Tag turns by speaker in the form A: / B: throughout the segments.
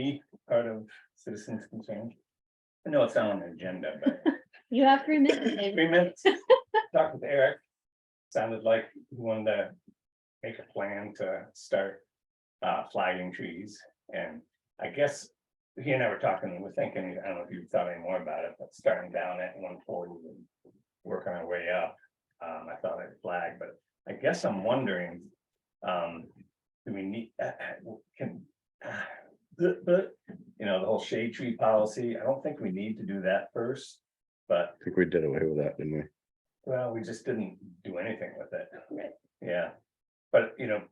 A: be part of citizens concern? I know it's not on the agenda, but
B: You have three minutes, David.
A: three minutes, talk with Eric. Sounded like he wanted to make a plan to start uh flagging trees and I guess. He and I were talking, and we're thinking, I don't know if you thought any more about it, but starting down at one forty and working our way up. Um, I thought I'd flag, but I guess I'm wondering, um, do we need, uh, uh, can. uh, The, the, you know, the whole shade tree policy, I don't think we need to do that first, but
C: I think we did away with that, didn't we?
A: well, we just didn't do anything with it.
B: Right.
A: Yeah, but you know,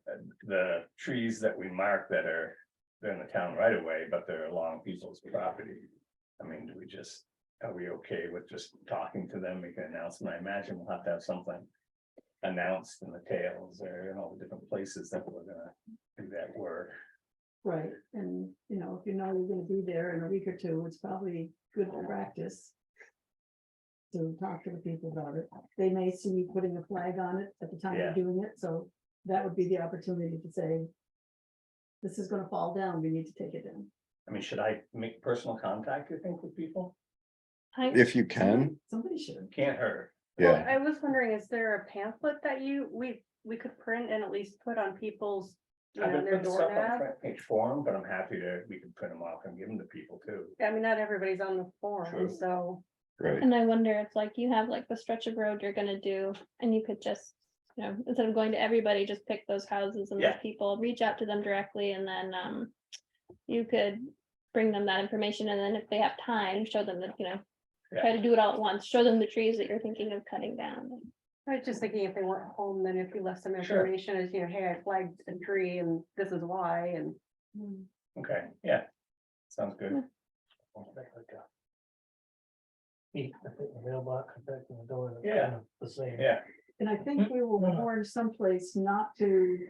A: the trees that we mark that are, they're in the town right away, but they're along people's property. I mean, do we just, are we okay with just talking to them, make an announcement? I imagine we'll have to have something. Announced in the tales or in all the different places that we're gonna do that work.
D: Right, and you know, if you know you're gonna be there in a week or two, it's probably good practice. To talk to the people about it. They may see you putting a flag on it at the time
A: Yeah.
D: you're doing it, so that would be the opportunity to say. This is gonna fall down, we need to take it down.
A: I mean, should I make personal contact, you think, with people?
B: I,
C: If you can,
D: Somebody should.
A: Can't hurt.
D: Mm-hmm.
B: well,
C: yeah,
B: I was wondering, is there a pamphlet that you, we, we could print and at least put on people's, you
A: I've
B: know,
A: been
B: their
A: putting stuff on
B: doorknob?
A: front page forum, but I'm happy to, we can print them off and give them to people too.
B: I mean, not everybody's on the
A: True.
B: forum, so,
C: right.
E: And I wonder if like you have like the stretch of road you're gonna do and you could just, you know, instead of going to everybody, just pick those houses and those
A: Yeah.
E: people, reach out to them directly and then um. You could bring them that information and then if they have time, show them that, you know. Try to do it all at once, show them the trees that you're thinking of cutting down.
B: I was just thinking if they weren't home, then if you left some
A: Sure.
B: information as, you know, hey, I flagged a tree and this is why, and.
A: Okay, yeah, sounds good.
E: Yeah.
F: Keep the mailbox, protecting the door. that's
A: Yeah.
F: kind of The same.
A: Yeah,
D: And I
A: Mm,
D: think we will
F: No, no.
D: warn someplace not to.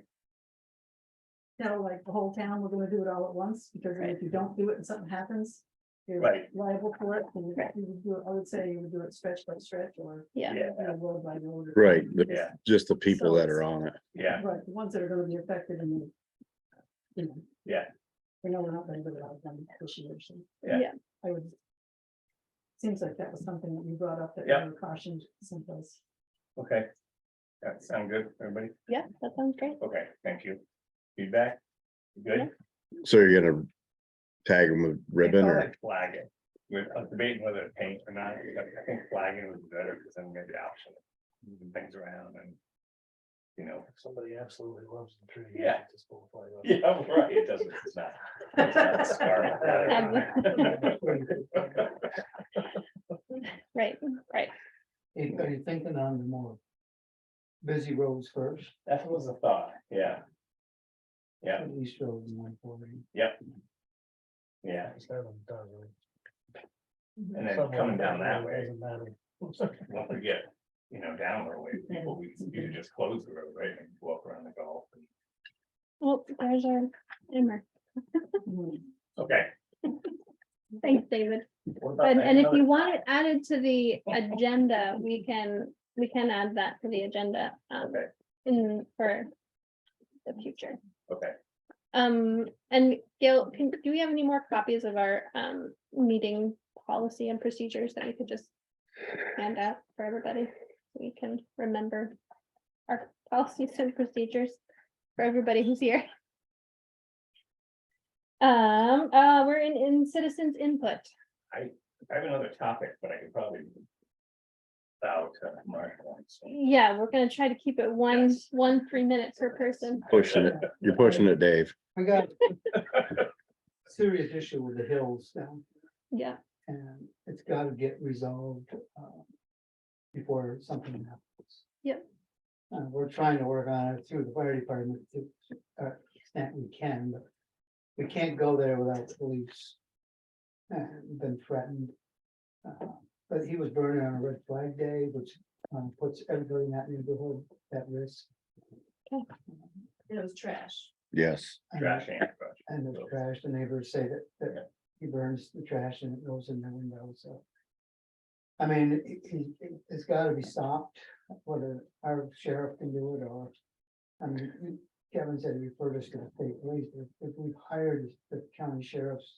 D: Tell like the whole town, we're gonna do it all at once, because then if you don't do it and something happens. You're
A: Right.
D: liable for it, and you you would do, it- I would say you would do it stretch by stretch or.
E: Yeah,
A: yeah,
D: you know, road by road.
C: Right, the-
A: Yeah.
C: just the people
D: So
C: that are
D: it's-
C: on it.
A: yeah,
D: Right, the ones that are gonna be affected and. then, you know.
A: Yeah.
D: We know we're not gonna do it all of them this year, so.
A: Yeah.
E: Yeah.
D: I would. Seems like that was something that you brought up that
A: Yeah.
D: you were cautioned someplace.
A: okay. That sound good, everybody?
E: yeah, that sounds great.
A: Okay, thank you. Feedback? You Good?
C: So you're gonna tag them with
D: oh,
C: ribbon or,
A: Flag it. We're I was debating whether to paint or not, but I think flagging would be better because then maybe option. moving Things around and. You know,
F: Somebody absolutely loves the tree.
A: Yeah.
F: Just pull a flag off.
A: yeah, right, it doesn't, it's not. it's not scarlet letter on there.
E: Right, right.
G: Hey, Are you thinking on the more busy roads first,
A: That was a thought, yeah, Yeah.
G: at least roads in one forty?
A: yeah.
F: It's not on the dog, right?
A: And then
F: Somewhere
A: coming down
F: down
A: that
F: there,
A: way,
F: doesn't matter.
A: don't forget, you know, down the way, people, we, you
E: Mm-hmm.
A: could just close the road, right, and walk around the golf. and-
E: Well, there's our timer.
D: Mm-hmm.
A: Okay.
E: Thanks, David.
A: what about
E: And,
A: that?
E: and if you
A: Another-
E: want it added to the agenda, we can, we can add that to the agenda, um,
A: Okay.
E: in, for the future.
A: Okay,
E: Um, and Gail, can, do we have any more copies of our, um, meeting policy and procedures that we could just hand out for everybody? so We can remember our policies and procedures for everybody who's here. Um, uh, we're in, in citizens input.
A: I have another topic, but I could probably. About uh, Mark.
E: Yeah, we're gonna try to keep it one, one, three minutes per person.
C: pushing it, you're pushing it, Dave.
G: I got serious issue with the hills down,
E: Yeah,
G: and it's gotta get resolved, uh, before something happens.
E: Yep.
G: Uh, we're trying to work on it through the fire department to, uh, extent we can, but we can't go there without the police. And been threatened. Uh, But he was burning on a red flag day, which, um, puts everybody in that neighborhood at risk.
D: It was trash.
C: Yes,
G: And-
A: Trash and trash.
G: And the trash, the neighbors say that,
A: Yeah.
G: that he burns the trash and it goes in the window, so. I mean, it- it, it, it's gotta be stopped, whether our sheriff can do it or. I mean, Kevin said refer us to the state police, if, if we've hired the county sheriff's